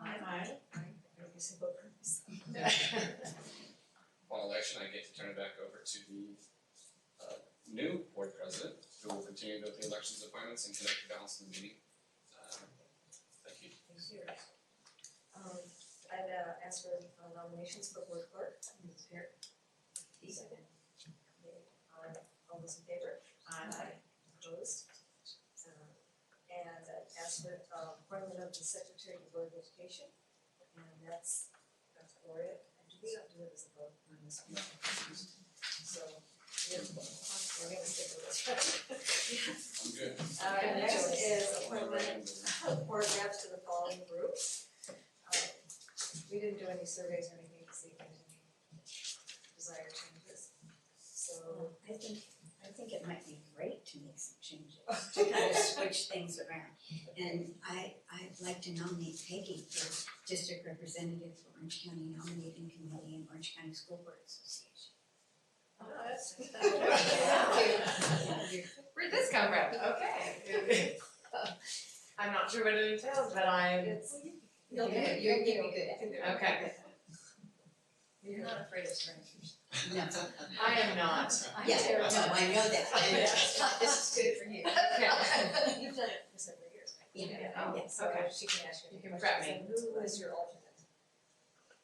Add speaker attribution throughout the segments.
Speaker 1: Aye.
Speaker 2: Every single person.
Speaker 3: On election, I get to turn it back over to the uh new board president, who will continue to the elections appointments and conduct the balance of the meeting. Um, thank you.
Speaker 2: Thank you. Um, I'd uh, ask for uh, nominations for board clerk. Ms. Pear. Second. Okay, um, all those in favor? Aye. Opposed? Uh, and I'd ask for uh, appointment of the secretary to board of education. And that's, that's Gloria. And we don't do it as a vote on this one. So, yeah, we're gonna stick with this.
Speaker 3: I'm good.
Speaker 2: Uh, next is appointment
Speaker 3: Appointment.
Speaker 2: board reps to the following groups. Uh, We didn't do any surveys or anything to see if there's any desired changes. So,
Speaker 1: I think, I think it might be great to make some changes, to kind of switch things around. And I, I'd like to nominate Peggy for district representative for Orange County nominating committee and Orange County School Board Association.
Speaker 2: oh, that's.
Speaker 1: Yeah, you're-
Speaker 4: Where'd this come from? Okay. I'm not sure what it entails, but I'm,
Speaker 2: It's,
Speaker 5: You'll do it, you're, you'll be good at it.
Speaker 4: okay,
Speaker 5: You're not afraid of strangers.
Speaker 1: No,
Speaker 4: I am not.
Speaker 5: I'm
Speaker 1: yeah,
Speaker 5: terrible.
Speaker 1: no, I know that.
Speaker 5: This is good for you.
Speaker 4: Okay.
Speaker 2: you've done it for several years, right?
Speaker 1: Yeah.
Speaker 4: Oh,
Speaker 2: So
Speaker 4: okay.
Speaker 2: she can ask you.
Speaker 4: You can prep me.
Speaker 2: And Who is your alternate?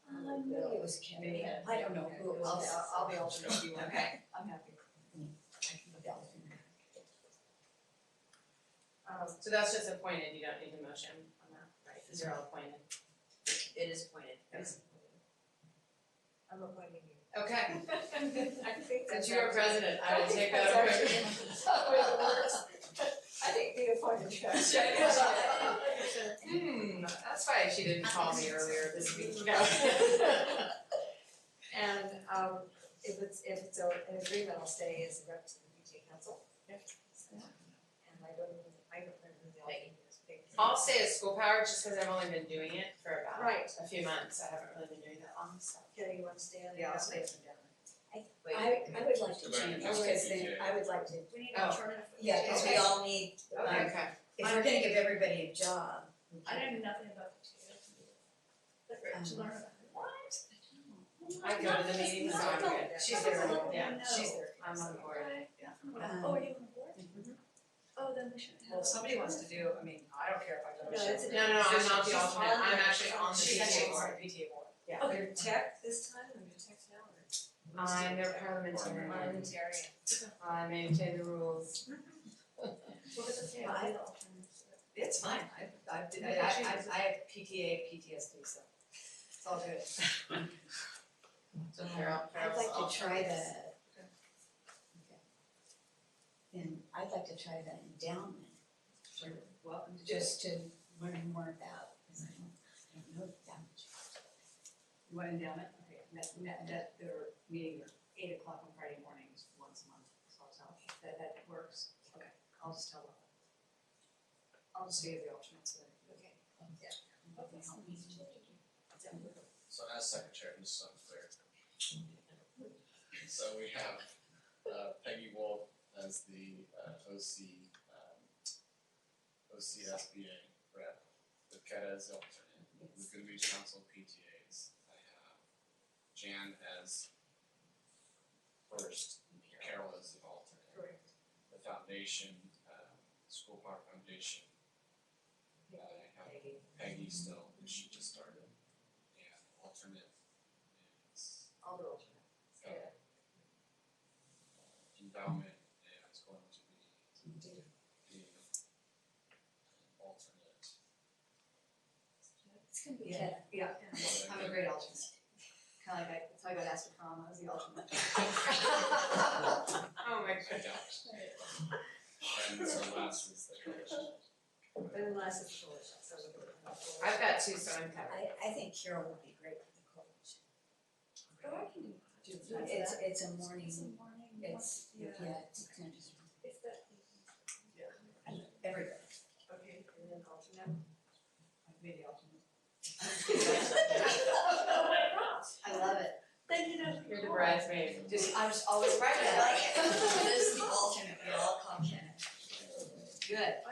Speaker 1: Um, maybe it was Kennedy, I don't know who it
Speaker 2: I'll,
Speaker 1: was.
Speaker 2: I'll- I'll be alternate if you want.
Speaker 4: Okay.
Speaker 2: I'm happy. Um,
Speaker 4: So that's just appointed, you don't need a motion on that, right? These are all appointed. It is appointed.
Speaker 2: I'm appointing you.
Speaker 4: Okay,
Speaker 2: I think
Speaker 4: since
Speaker 2: that's.
Speaker 4: you are president, I will take
Speaker 2: That's
Speaker 4: that
Speaker 2: actually-
Speaker 4: over.
Speaker 2: I think the appointed judge.
Speaker 4: Hmm, that's why she didn't call me earlier this week.
Speaker 2: And um if it's if it's a- an agreement, I'll stay as a rep to the BJ council. So, And I don't even, I don't remember who the alternate is, big.
Speaker 4: I'll stay at school power just because I've only been doing it for about
Speaker 2: Right,
Speaker 4: a few months. I haven't really been doing that long, so.
Speaker 2: Kelly, you want to stay on?
Speaker 5: Yeah, I'll stay from down there. Wait.
Speaker 1: I, I would like to
Speaker 3: Go back
Speaker 1: change,
Speaker 3: to the
Speaker 1: because then
Speaker 3: PTA.
Speaker 1: I would like to,
Speaker 2: We need
Speaker 4: Oh.
Speaker 2: an alternative.
Speaker 1: yeah, because we
Speaker 4: Okay.
Speaker 1: all need,
Speaker 4: Okay.
Speaker 1: um, if we're gonna give everybody a job. we
Speaker 5: I
Speaker 1: can-
Speaker 5: don't know nothing about the two. But to
Speaker 1: Um,
Speaker 5: learn about it.
Speaker 2: What?
Speaker 4: I go to the meetings, so I'm good. She's
Speaker 5: That's a
Speaker 4: there,
Speaker 5: little
Speaker 4: yeah,
Speaker 5: one,
Speaker 4: she's
Speaker 5: no.
Speaker 4: there. I'm on board.
Speaker 5: Okay.
Speaker 1: Um,
Speaker 5: Oh, are you on the board?
Speaker 1: Mhm.
Speaker 5: Oh, then we shouldn't have.
Speaker 6: Well, if somebody wants to do, I mean, I don't care if I go.
Speaker 2: No, it's a-
Speaker 4: No, no, no, I'm not
Speaker 6: She's
Speaker 4: the alternate,
Speaker 6: on
Speaker 4: I'm
Speaker 6: the-
Speaker 4: actually on the
Speaker 6: She's actually
Speaker 4: PTA
Speaker 6: on
Speaker 4: board.
Speaker 6: the PTA board.
Speaker 2: Oh, you're tech this time, or you're tech now, or?
Speaker 4: I'm their parliamentarian,
Speaker 2: Parliamentarian.
Speaker 4: I maintain the rules.
Speaker 5: What does it say?
Speaker 1: Well, I-
Speaker 6: It's fine, I, I, did- I, I, I have PTA, PTSD, so it's all good.
Speaker 4: So Carol,
Speaker 1: I'd
Speaker 4: Carol's
Speaker 1: like to try
Speaker 4: alternate.
Speaker 1: the. And I'd like to try the endowment for, well, just to learn more about, because I don't, I don't know that much.
Speaker 6: What endowment, okay, that, that, that, their meeting, is eight o'clock on Friday mornings, once a month, so it's all, that, that works, okay, I'll just tell them. I'll just stay as the alternate, so.
Speaker 2: Okay.
Speaker 1: Hopefully help me to-
Speaker 3: So as secretary, just so I'm clear. So we have uh Peggy Wolf as the uh OC um OCSBA rep, with Keta as the alternate, with Good Beach Council PTAs. I have Jan as first, Carol as the alternate.
Speaker 2: Correct.
Speaker 3: The foundation, um School Park Foundation. I have Peggy still, who she just started, and alternate is
Speaker 2: I'll do alternate.
Speaker 3: uh, endowment, and it's going to be the alternate.
Speaker 1: It's gonna be
Speaker 6: Yeah.
Speaker 1: tough.
Speaker 6: Yeah,
Speaker 3: Well,
Speaker 6: I'm a great alternate, kinda like I, that's how I got asked to prom, I was the alternate.
Speaker 4: Oh my
Speaker 3: I doubt. And so last is the coalition.
Speaker 2: But unless it's coalition, so we're going
Speaker 4: I've got two, so I'm covered.
Speaker 1: I, I think Carol would be great for the coalition.
Speaker 5: Oh, I can do that.
Speaker 1: It's, it's a
Speaker 5: It's a
Speaker 1: morning,
Speaker 5: morning,
Speaker 1: it's, yeah,
Speaker 5: yeah.
Speaker 1: it's kind of,
Speaker 5: It's that.
Speaker 1: everybody.
Speaker 2: Okay, and then alternate.
Speaker 6: I've made the alternate.
Speaker 5: Oh, I love it.
Speaker 2: Then you know.
Speaker 4: You're the bridesmaid.
Speaker 6: Just, I'm just always right,
Speaker 1: I like
Speaker 6: I
Speaker 1: it. This is the alternate, we all call Kenneth.
Speaker 6: like it. Good.